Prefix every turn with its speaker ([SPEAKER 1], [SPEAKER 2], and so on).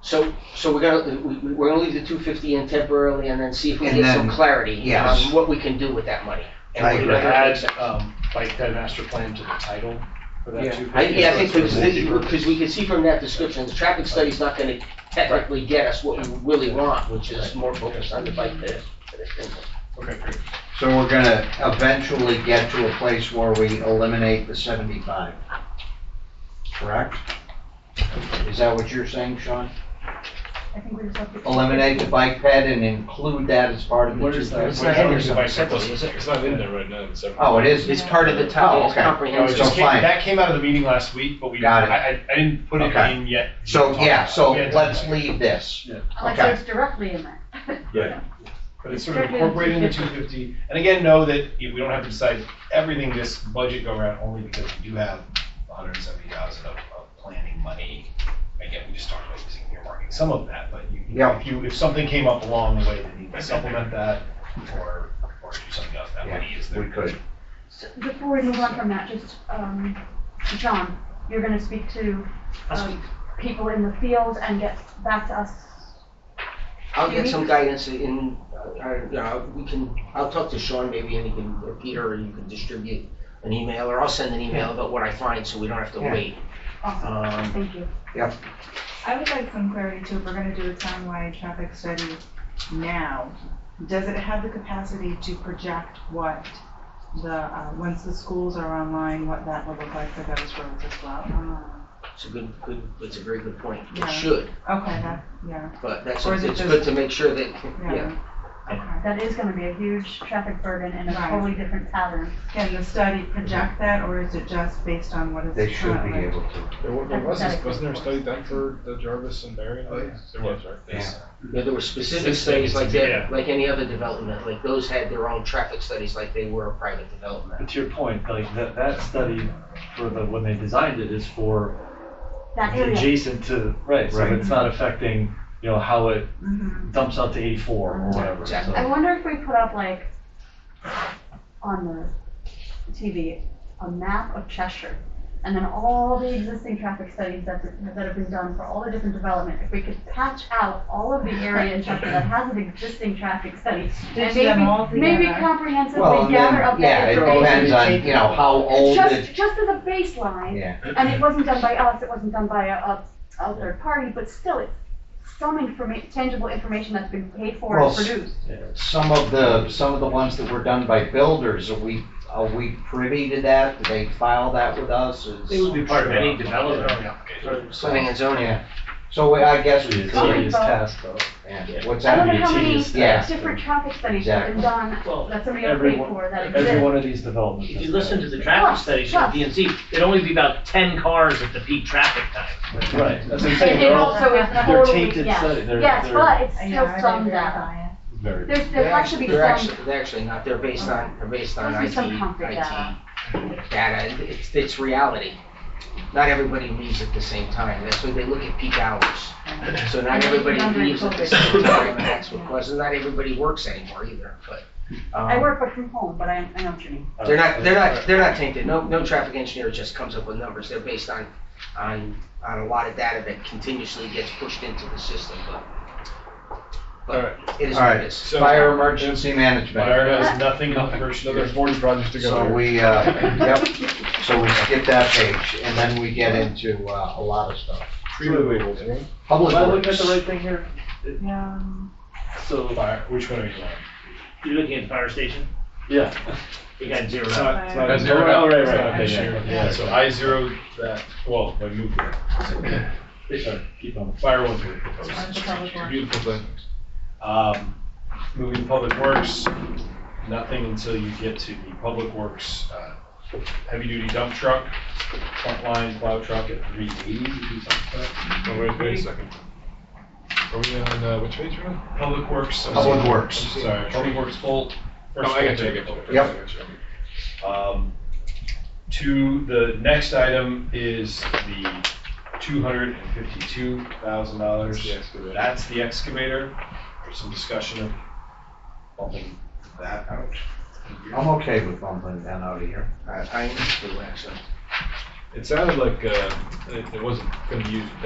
[SPEAKER 1] So, so we're gonna, we- we- we're gonna leave the two fifty in temporarily and then see if we
[SPEAKER 2] And
[SPEAKER 1] get some
[SPEAKER 2] then-
[SPEAKER 1] clarity
[SPEAKER 2] yes.
[SPEAKER 1] on what we can do with that money. And
[SPEAKER 2] I
[SPEAKER 1] whether
[SPEAKER 3] Could
[SPEAKER 2] agree.
[SPEAKER 1] it makes
[SPEAKER 3] add,
[SPEAKER 1] sense.
[SPEAKER 3] um, bike ped master plan to the title for that
[SPEAKER 1] Yeah,
[SPEAKER 3] too.
[SPEAKER 1] I, yeah, I think,
[SPEAKER 3] Because it's a
[SPEAKER 1] because we can see from that description, the traffic study's not gonna technically get us what we really want, which is more focused on the bike path.
[SPEAKER 3] multi-purpose. Okay, great.
[SPEAKER 2] So we're gonna eventually get to a place where we eliminate the seventy-five. Correct? Is that what you're saying, Sean?
[SPEAKER 4] I think we just have to.
[SPEAKER 2] Eliminate the bike ped and include that as part of the
[SPEAKER 5] What
[SPEAKER 2] two
[SPEAKER 5] is that?
[SPEAKER 3] It's
[SPEAKER 5] It's
[SPEAKER 3] not
[SPEAKER 5] not
[SPEAKER 2] thousand?
[SPEAKER 5] in there.
[SPEAKER 3] the bicycle.
[SPEAKER 5] It's not in there right now, it's.
[SPEAKER 2] Oh, it is?
[SPEAKER 1] It's part of the town, it's
[SPEAKER 2] Oh, Okay.
[SPEAKER 3] No, it
[SPEAKER 1] comprehensive.
[SPEAKER 2] So
[SPEAKER 3] just came,
[SPEAKER 2] fine.
[SPEAKER 3] that came out of the meeting last week, but we,
[SPEAKER 2] Got it.
[SPEAKER 3] I, I I didn't put it
[SPEAKER 2] Okay.
[SPEAKER 3] in yet.
[SPEAKER 2] So, yeah, so
[SPEAKER 3] We had to-
[SPEAKER 2] let's leave this.
[SPEAKER 4] Like
[SPEAKER 2] Okay.
[SPEAKER 4] it's directly in there.
[SPEAKER 5] Yeah.
[SPEAKER 3] But it's sort of incorporated in the two fifty, and again, know that you- we don't have to decide everything this budget go around, only because we do have hundred and seventy thousand of, of planning money. Again, we just talked about using earmarking some of that, but you,
[SPEAKER 2] Yeah.
[SPEAKER 3] if you, if something came up along the way that needed to supplement that, or, or do something else, that
[SPEAKER 2] Yeah,
[SPEAKER 3] money is there.
[SPEAKER 2] We could.
[SPEAKER 4] So Before we move on from that, just, um, John, you're gonna speak to, um, people in the field and get back to us.
[SPEAKER 1] I'll get some guidance in, uh, I, you know, we can, I'll talk to Sean maybe and he can, or Peter, or you can distribute an email, or I'll send an email about what I find, so we don't have to
[SPEAKER 2] Yeah.
[SPEAKER 1] wait.
[SPEAKER 4] Awesome,
[SPEAKER 1] Um,
[SPEAKER 4] thank you.
[SPEAKER 6] I would like some clarity too, if we're gonna do a townwide traffic study now, does it have the capacity to project what the, uh, once the schools are online, what that will look like for those roads as well?
[SPEAKER 2] Uh-huh.
[SPEAKER 1] It's a good, good, it's a very good point.
[SPEAKER 6] Yeah.
[SPEAKER 1] It should,
[SPEAKER 6] Okay, that, yeah,
[SPEAKER 1] but that's,
[SPEAKER 6] Or is it
[SPEAKER 1] it's
[SPEAKER 6] just-
[SPEAKER 1] good to make sure that, yeah.
[SPEAKER 6] yeah. Okay.
[SPEAKER 4] That is gonna be a huge traffic burden and a
[SPEAKER 6] Right.
[SPEAKER 4] totally different pattern.
[SPEAKER 6] Can the study project that, or is it just based on what is
[SPEAKER 2] They should be
[SPEAKER 6] currently?
[SPEAKER 2] able to.
[SPEAKER 5] Wasn't wasn't there a study done for the Jarvis and Barry?
[SPEAKER 3] Oh,
[SPEAKER 5] There was, right?
[SPEAKER 2] Yeah.
[SPEAKER 1] Yeah, there were specific
[SPEAKER 5] Specific,
[SPEAKER 1] studies like
[SPEAKER 3] yeah.
[SPEAKER 1] that, like any other development, like those had their own traffic studies like they were a private development.
[SPEAKER 7] But to your point, like that, that study for the, when they designed it is for
[SPEAKER 4] That area,
[SPEAKER 7] adjacent to, right, so
[SPEAKER 2] Right.
[SPEAKER 7] it's not affecting, you know, how it
[SPEAKER 6] Mhm.
[SPEAKER 7] dumps out to eighty-four or whatever,
[SPEAKER 1] Exactly.
[SPEAKER 4] I
[SPEAKER 7] so.
[SPEAKER 4] wonder if we put up like, on the TV, a map of Cheshire, and then all the existing traffic studies that, that have been done for all the different development, if we could patch out all of the area in Cheshire that has an existing traffic study, and
[SPEAKER 6] Stitch them all
[SPEAKER 4] maybe, maybe
[SPEAKER 6] together.
[SPEAKER 2] Well,
[SPEAKER 4] comprehensively
[SPEAKER 2] and
[SPEAKER 4] gather up
[SPEAKER 2] then, yeah,
[SPEAKER 4] that
[SPEAKER 2] it
[SPEAKER 4] information.
[SPEAKER 2] depends on, you know, how old it,
[SPEAKER 4] Just, just as a baseline,
[SPEAKER 2] yeah.
[SPEAKER 4] and it wasn't done by us, it wasn't done by a, a, a third party, but still, it's some informa, tangible information that's been paid for
[SPEAKER 2] Well,
[SPEAKER 4] and
[SPEAKER 2] s-
[SPEAKER 4] produced.
[SPEAKER 2] Some of the, some of the ones that were done by builders, are we, are we privy to that? Do they file that with us? Is-
[SPEAKER 3] It would be part of any development.
[SPEAKER 1] Planning and zoning.
[SPEAKER 2] Yeah. So I guess,
[SPEAKER 7] It's a
[SPEAKER 4] Sorry,
[SPEAKER 7] tedious
[SPEAKER 4] folks.
[SPEAKER 7] task though.
[SPEAKER 2] yeah, what's
[SPEAKER 4] I
[SPEAKER 2] that?
[SPEAKER 4] wonder how many
[SPEAKER 7] tedious
[SPEAKER 2] task.
[SPEAKER 4] different traffic studies have been done
[SPEAKER 8] Well,
[SPEAKER 4] that somebody else paid
[SPEAKER 7] Every one,
[SPEAKER 4] for that
[SPEAKER 7] every
[SPEAKER 4] exist.
[SPEAKER 7] one of these developments.
[SPEAKER 8] If you
[SPEAKER 7] is
[SPEAKER 8] listen
[SPEAKER 7] that.
[SPEAKER 8] to the traffic studies from DNC, it'd only be about ten cars at the peak traffic time.
[SPEAKER 7] Right, that's what I'm saying,
[SPEAKER 4] And it
[SPEAKER 7] they're all,
[SPEAKER 4] also is
[SPEAKER 7] they're
[SPEAKER 4] totally,
[SPEAKER 7] tainted
[SPEAKER 4] yes,
[SPEAKER 7] study, they're,
[SPEAKER 4] yes,
[SPEAKER 7] they're
[SPEAKER 4] but it's
[SPEAKER 6] I
[SPEAKER 4] still
[SPEAKER 6] know, I
[SPEAKER 4] some
[SPEAKER 6] didn't
[SPEAKER 4] data.
[SPEAKER 6] verify it.
[SPEAKER 7] very.
[SPEAKER 4] There's,
[SPEAKER 1] They're
[SPEAKER 4] there actually be
[SPEAKER 1] they're
[SPEAKER 4] some,
[SPEAKER 1] actually- They're actually not, they're based on, they're based on
[SPEAKER 4] Must be
[SPEAKER 1] IT,
[SPEAKER 4] some concrete
[SPEAKER 1] IT data, it's, it's reality. Not everybody leaves at the same time, that's why they look at peak hours. So not
[SPEAKER 4] And then
[SPEAKER 1] everybody
[SPEAKER 4] remember
[SPEAKER 1] leaves at the
[SPEAKER 4] COVID.
[SPEAKER 1] same time, and that's what causes, not everybody works anymore either, but. um,
[SPEAKER 4] I work from home, but I, I know what you mean.
[SPEAKER 1] They're not, they're not, they're not tainted. No, no traffic engineer just comes up with numbers. They're based on, on, on a lot of data that continuously gets pushed into the system, but, but it is
[SPEAKER 2] All
[SPEAKER 1] what it
[SPEAKER 2] right.
[SPEAKER 1] is.
[SPEAKER 3] So-
[SPEAKER 2] Fire emergency management.
[SPEAKER 3] Fire has nothing on the first year.
[SPEAKER 5] Another forty projects to go.
[SPEAKER 2] So
[SPEAKER 5] here.
[SPEAKER 2] we, uh, yep, so we skip that page and then we get into, uh, a lot of stuff.
[SPEAKER 5] Wait, wait, wait, wait.
[SPEAKER 2] Public
[SPEAKER 7] Am I looking at
[SPEAKER 2] works.
[SPEAKER 7] the right thing here?
[SPEAKER 6] Yeah.
[SPEAKER 7] So,
[SPEAKER 3] Fire, which one are you on?
[SPEAKER 8] You're looking at the fire station,
[SPEAKER 7] yeah.
[SPEAKER 8] you got zero
[SPEAKER 7] It's
[SPEAKER 8] out.
[SPEAKER 7] not, it's not.
[SPEAKER 5] That's zero out.
[SPEAKER 7] Oh, right,
[SPEAKER 5] It's
[SPEAKER 7] right,
[SPEAKER 5] not
[SPEAKER 7] okay,
[SPEAKER 5] this year.
[SPEAKER 7] yeah,
[SPEAKER 5] Yeah, so I zeroed that, well, I moved it.
[SPEAKER 7] yeah. Sorry, keep on.
[SPEAKER 3] Fire was really proposed.
[SPEAKER 6] That's the public one.
[SPEAKER 5] Beautiful thing.
[SPEAKER 3] Um, Moving to Public Works, nothing until you get to the Public Works uh, heavy-duty dump truck, front line plow truck at 380, you do something for that.
[SPEAKER 5] Oh, wait, wait a second. Are we on, uh, which page are we on?
[SPEAKER 3] Public Works. I'm
[SPEAKER 2] Public
[SPEAKER 3] sorry.
[SPEAKER 2] Works.
[SPEAKER 3] I'm Sorry, Public Works full.
[SPEAKER 5] No, Oh, I got you, I got you.
[SPEAKER 2] Yep.
[SPEAKER 5] I got you.
[SPEAKER 3] Um, To, the next item is the
[SPEAKER 5] There's the
[SPEAKER 3] $252,000.
[SPEAKER 5] excavator.
[SPEAKER 3] That's the excavator. There's some discussion of bumping that out.
[SPEAKER 2] I'm okay with bumping that out of here.
[SPEAKER 1] I, I am too, actually.
[SPEAKER 5] It sounded like, uh, it it wasn't gonna be used